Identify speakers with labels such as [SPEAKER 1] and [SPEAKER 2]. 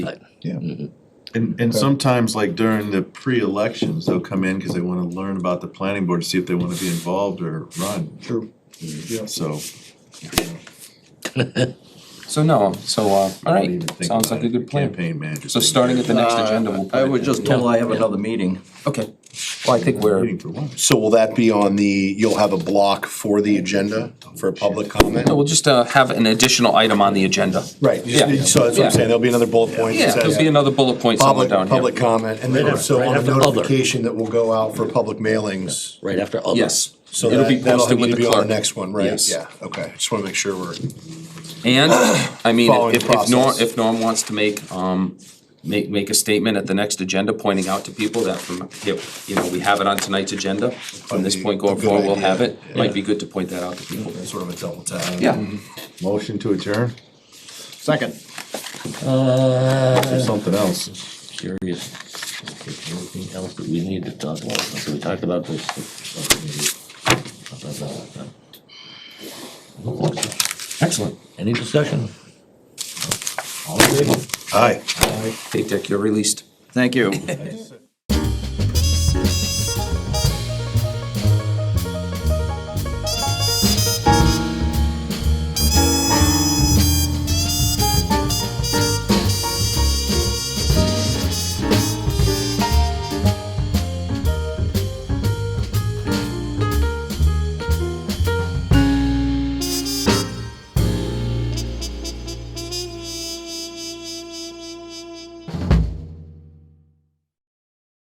[SPEAKER 1] but
[SPEAKER 2] Yeah.
[SPEAKER 3] And, and sometimes like during the pre-elections, they'll come in because they wanna learn about the planning board, to see if they wanna be involved or run, Mm,
[SPEAKER 2] True. Yeah.
[SPEAKER 3] so.
[SPEAKER 4] So no, so, uh, all
[SPEAKER 3] I
[SPEAKER 4] right,
[SPEAKER 3] didn't think
[SPEAKER 4] sounds
[SPEAKER 3] about
[SPEAKER 4] like a
[SPEAKER 3] it,
[SPEAKER 4] good plan.
[SPEAKER 3] Campaign manager.
[SPEAKER 4] So
[SPEAKER 3] thing.
[SPEAKER 4] starting at the next
[SPEAKER 5] Uh,
[SPEAKER 4] agenda, we'll. put
[SPEAKER 5] I
[SPEAKER 4] it
[SPEAKER 5] was
[SPEAKER 4] in.
[SPEAKER 5] just told I have another meeting.
[SPEAKER 4] Okay, well, I think we're,
[SPEAKER 3] Meeting for what?
[SPEAKER 2] So will that be on the, you'll have a block for the agenda for public comment?
[SPEAKER 4] no, we'll just, uh, have an additional item on the agenda.
[SPEAKER 2] Right, you
[SPEAKER 4] Yeah.
[SPEAKER 2] just- so that's what
[SPEAKER 4] Yeah.
[SPEAKER 2] I'm saying, there'll be another bullet point
[SPEAKER 4] Yeah,
[SPEAKER 2] that
[SPEAKER 4] there'll be
[SPEAKER 2] says
[SPEAKER 4] another bullet point somewhere
[SPEAKER 2] public,
[SPEAKER 4] down
[SPEAKER 2] public
[SPEAKER 4] here.
[SPEAKER 2] comment, and then
[SPEAKER 1] Right after-
[SPEAKER 2] so on a
[SPEAKER 1] right after other.
[SPEAKER 2] notification that will go out for public mailings.
[SPEAKER 1] right after other.
[SPEAKER 4] Yes,
[SPEAKER 2] So
[SPEAKER 4] it'll be
[SPEAKER 2] that, that'll
[SPEAKER 4] posted
[SPEAKER 2] need
[SPEAKER 4] with
[SPEAKER 2] to
[SPEAKER 4] the
[SPEAKER 2] be on the
[SPEAKER 4] clerk.
[SPEAKER 2] next one, right?
[SPEAKER 4] Yes.
[SPEAKER 2] Yeah, okay, just wanna make sure we're,
[SPEAKER 4] And, I mean,
[SPEAKER 2] Following
[SPEAKER 4] if, if Norm,
[SPEAKER 2] process.
[SPEAKER 4] if Norm wants to make, um, make, make a statement at the next agenda pointing out to people that from, you know, we have it on tonight's agenda. From this point going
[SPEAKER 2] Probably a good
[SPEAKER 4] forward, we'll have
[SPEAKER 2] idea.
[SPEAKER 4] it. Might be good to point that out to people. Mm-hmm.
[SPEAKER 2] sort of a double tap.
[SPEAKER 4] Yeah.
[SPEAKER 3] Motion to adjourn,
[SPEAKER 5] Second.
[SPEAKER 3] or something else,
[SPEAKER 1] Curious, if there's anything else that we need to talk about, so we talked about this. Excellent, any discussion? All in favor?
[SPEAKER 3] aye.
[SPEAKER 4] Hey Dick, you're released.
[SPEAKER 5] Thank you.